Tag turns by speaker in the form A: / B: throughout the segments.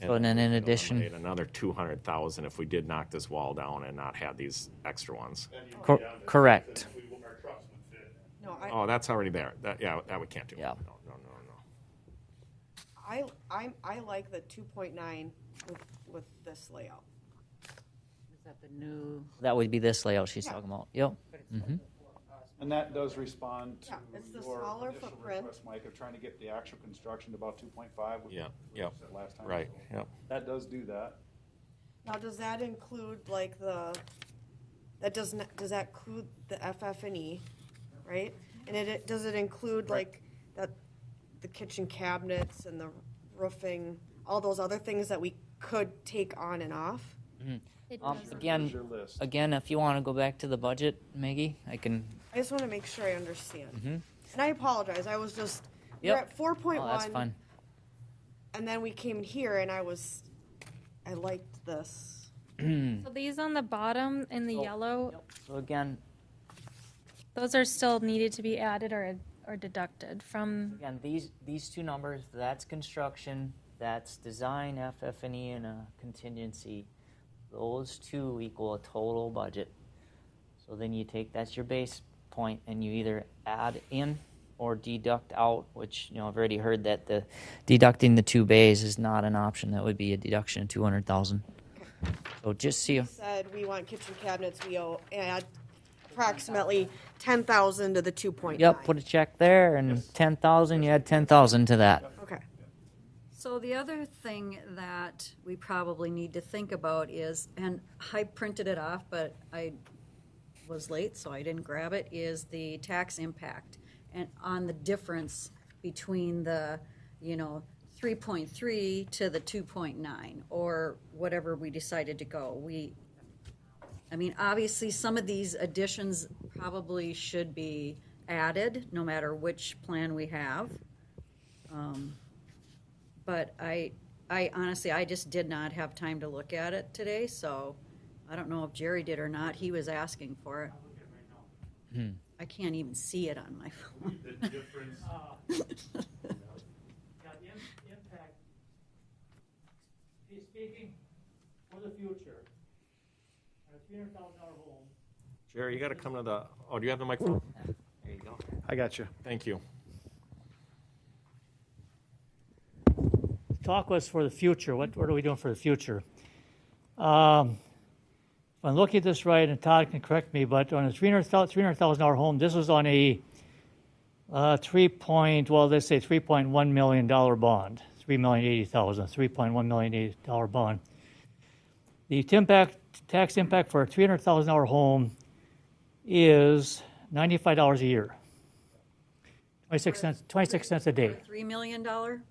A: And
B: So and then in
A: it'll
B: addition-
A: eliminate Another two hundred thousand if we did knock this wall down and not have these extra ones.
C: Then you
B: Cor-
C: go down to
B: correct.
C: six and we- Our trucks would fit.
D: No, I,
A: Oh, that's already there. That, yeah, that we can't do.
B: Yeah.
A: No, no, no, no.
D: I, I'm, I like the two point nine with, with this layout.
E: Is that the new?
B: That would be this layout she's talking about. Yep.
F: And that does respond to
D: Yeah, it's the
F: your
D: smaller
F: initial
D: footprint.
F: request, Mike, of trying to get the actual construction to about two point five.
A: Yeah, yeah,
F: Last time.
A: Right,
F: So
A: yeah.
F: That does do that.
D: Now, does that include like the, that does not, does that include the FF and E, right? And it- it, does it include like that, the kitchen cabinets and the roofing, all those other things that we could take on and off?
E: It
B: Um,
E: does.
F: Here's
B: again,
F: your list.
B: again, if you want to go back to the budget, Maggie, I can.
D: I just want to make sure I understand. And I apologize, I was just, we we're
B: Mm-hmm. Yep.
D: at four point
B: Oh,
D: one.
B: that's fine.
D: And then we came here and I was, I liked this.
G: So these on the bottom in the yellow,
B: So again,
G: those are still needed to be added or, or deducted from,
B: again, these these two numbers. That's construction. That's design, FF&E, and a contingency. Those two equal a total budget. So then you take that's your base point, and you either add in or deduct out. Which you know I've already heard that the deducting the two bays is not an option. That would be a deduction of two hundred thousand. So just see. you.
D: Said we want kitchen cabinets, we owe, add approximately ten thousand to the two point nine.
B: Yep, put a check there and 10,000, you add 10,000 to that.
D: Okay,
E: So the other thing that we probably need to think about is, and I printed it off, but I was late, so I didn't grab it, is the tax impact and on the difference between the, you know, three point three to the two point nine, or whatever we decided to go. We, I mean, obviously, some of these additions probably should be added, no matter which plan we have. Um, But I, I honestly, I just did not have time to look at it today, so I don't know if Jerry did or not. He was asking for it. I can't even see it on my phone.
C: The difference,
H: Yeah, Uh, the im- impact, be- speaking for the future, on a three hundred thousand dollar home,
A: Jerry, you gotta come to the, oh, do you have the microphone?
B: There you go.
F: I got you.
A: Thank you.
H: talk was for the future. What, what are we doing for the future? Um, if I'm looking at this right, and Todd can correct me, but on a three hundred thousand dollar home, this was on a uh, three point well, let's say three point one million dollar bond, three million eighty thousand, three point one million eighty dollar bond. The t- impact tax impact for a three hundred thousand dollar home is ninety five dollars a year, twenty six cents twenty six cents a day
E: Three million dollar?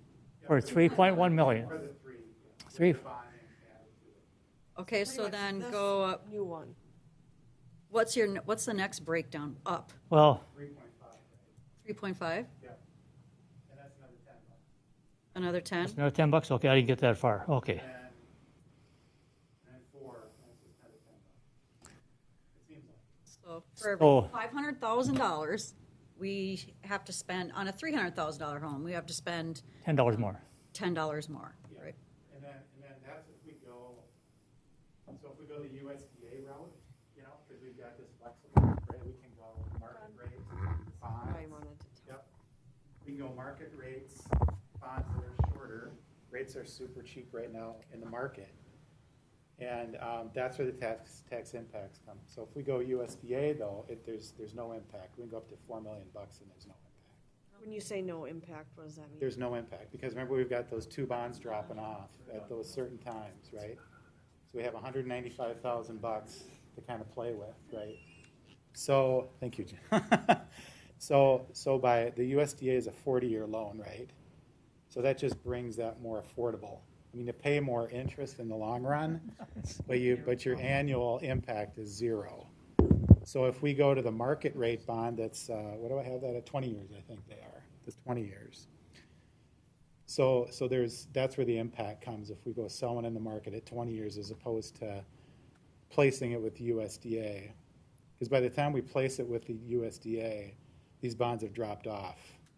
H: or 3.1 million. Three.
E: Okay, so then
D: this-
E: go up,
D: new one.
E: what's your, what's the next breakdown? Up,
H: Well,
C: three point five,
E: three point five,
C: and that's another ten bucks.
E: another ten?
H: another 10 bucks. Okay, I didn't get that far. Okay.
C: And, and four, that's just another ten bucks. It seems like.
E: So for
H: So-
E: every five hundred thousand dollars, we have to spend, on a three hundred thousand dollar home, we have to spend
H: $10 more.
E: ten dollars more, right?
C: And then, and then that's if we go, so if we go the USDA route, you know, because we've got this flexible rate, we can go market rates,
D: I
C: bonds.
D: wanted to
C: Yep. We can go market rates, bonds that are shorter. Rates are super cheap right now in the market. And um, that's where the tax, tax impacts come. So if we go USDA though, if there's, there's no impact, we can go up to four million bucks and there's no impact.
D: talk. When you say no impact, what does that mean?
C: There's no impact, because remember, we've got those two bonds dropping off at those certain times, right? So we have hundred and ninety-five thousand bucks to kind of play with, right? So, thank you, Jim. So, so by, the USDA is a forty-year loan, right? So that just brings that more affordable. I mean, you pay more interest in the long run, but you, but your annual impact is zero. So if we go to the market rate bond, that's, uh, what do I have that at? Twenty years, I think they are, that's twenty years. So, so there's, that's where the impact comes if we go selling in the market at twenty years as opposed to placing it with USDA. Because by the time we place it with the USDA, these bonds have dropped off